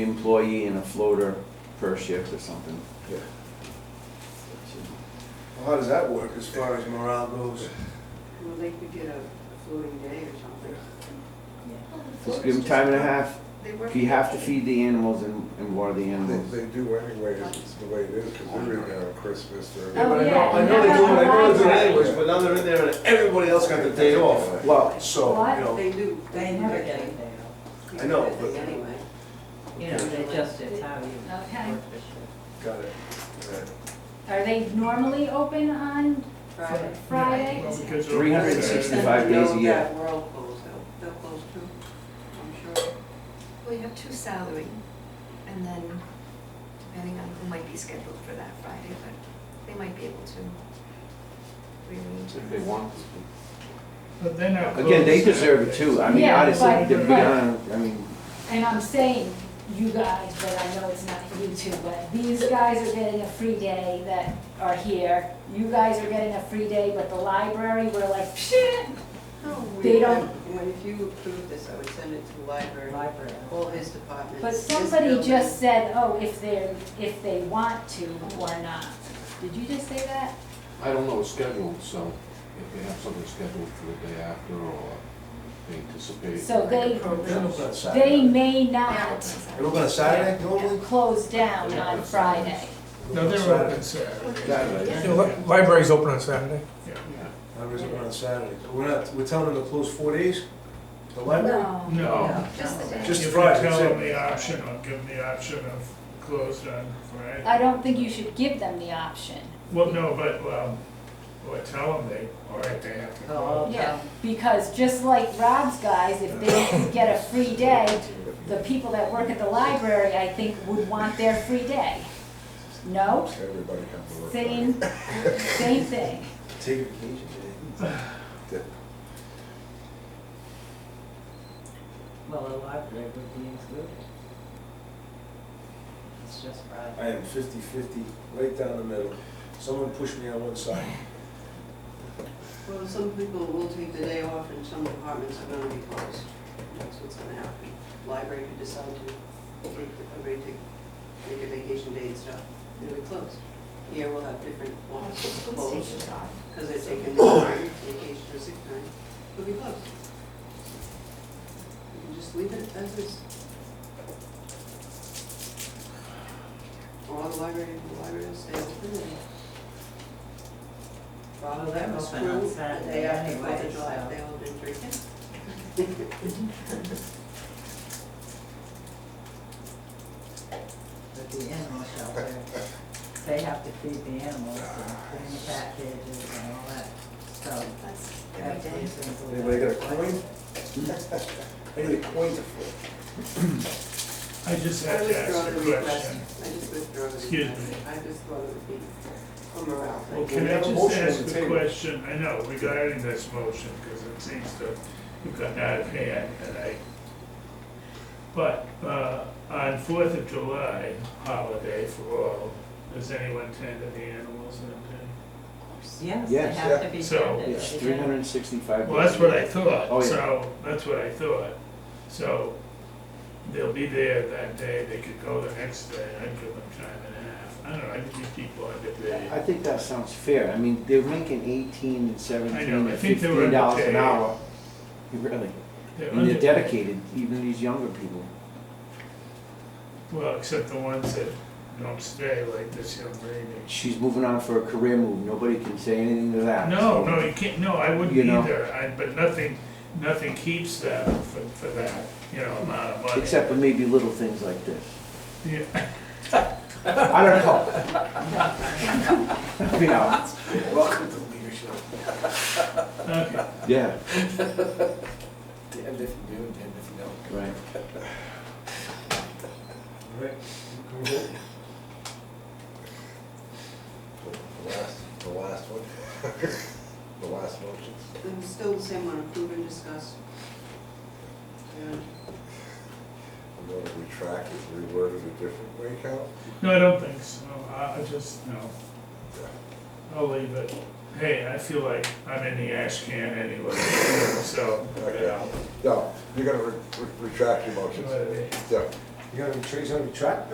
employee and a floater per shift or something. Yeah. That Well, how does that work as far as morale goes? Well, they could get a floating day or something. should- Just give them time and a half. They work. If you have to feed the animals and, and water the They, animals. they do anyway, is the way it is, because they're in there on Christmas, Yeah, they're. but I know, Oh, yeah, I know they you do, I know have they do it to- anyways, but now they're in there and everybody else got the day off. Well, So, What? you know, They do. They never get it there. I know, but- Anyway. You know, they just, it's how you work Okay. the shift. got it. Right. Are they normally open on Friday. Friday? Well, because of- 365 days a No, year. that World closed, they'll, they'll close too, I'm sure. Well, you have two salary, and then depending on who might be scheduled for that Friday, but they might be able to rearrange. If it. they want. But they're not Again, they closed. deserve it too. I mean, Yeah, honestly, but- to be but- honest, I mean, And I'm saying you guys, but I know it's not you two, but these guys are getting a free day that are here. You guys are getting a free day, but the library, we're like, shit. They don't- When, if you approve this, I would send it to the library, Library. all his departments. But this somebody building. just said, oh, if they're, if they want to or not. Did you just say that? I don't know, it's scheduled, so if they have something scheduled for the day after or they anticipate. So they, They don't go on they Saturday. may Yeah, not it's They don't go on Saturday normally? close down on Friday. No, they're open Saturday. Saturday. Library's open on Saturday. I was open on Saturday. But We're not, we're telling them to close four days? The library? No. No, Just the day. Just If you Friday, tell that's them it. the option, I'll give them the option of closed on Friday. I don't think you should give them the option. Well, no, but, well, well, tell them they, all right, they have to Oh, close. Yeah, because just like Rob's guys, if they get a free day, the people that work at the library, I think, would want their free day. No? Everybody comes to work. Same, same thing. Take a vacation day. Well, the library would be included. It's just Friday. I am fifty-fifty, right down the middle. Someone pushed me on one side. Well, some people will take the day off and some departments are gonna be closed. That's what's gonna happen. Library could decide to take, everybody take, take a vacation day and stuff, it'll be closed. Here we'll have different ones closed, because they're taking their time, vacation or sick time, it'll be closed. You can just leave it as is. Or the library, the library will stay open and. Rob will Well, they're have a open on school, the Saturday day after anyway, Fourth of July, so- they all been drinking. But the animal shelter, they have to feed the animals and clean the packages and all that. So That's every day. everybody's included. Anybody got a coin? I need a coin to flip. I just I have to withdraw ask the a request, question. I just withdraw the Excuse request, me. I just thought it would be for morale. Well, We can I have a just motion on the ask a table. question, I know, regarding this motion, because it seems to have gotten out of hand, and I, but, uh, on Fourth of July holiday for all, does anyone tend to the animals that Yes, they Yes, have yeah. to be So- tended. yes, They three do. hundred and sixty-five. day? Well, that's what I Oh, thought, yeah. so, that's what I thought, so, they'll be there that day, they could go the next day, I'd give them time and a half, I don't know, I think these people are good I day. think that sounds fair. I mean, they're making eighteen and I seventeen know, I and think they were fifteen dollars okay. an hour. Really, and they're dedicated, even these younger people. Well, except the ones that don't stay, like this young lady. She's moving on for a career move. Nobody can say anything to that. No, so- no, you can't, no, I wouldn't You know. either, I, but nothing, nothing keeps them for, for that, you know, amount of money. Except for maybe little things like this. Yeah, I don't know. You know, Welcome to leadership. okay, yeah, Damned if you do, damned if you don't. right. All right. The last, the last one. The last motion. It was still the same one, approve and discuss. And I'm gonna retract it, reword it a different way, Cal. no, I don't think so, I, I just, no, I'll leave it. Hey, I feel like I'm in the ash can anyway, so, you know, No, you're gonna re- re- retract your motions. whatever. Yeah, You got any trees on your track?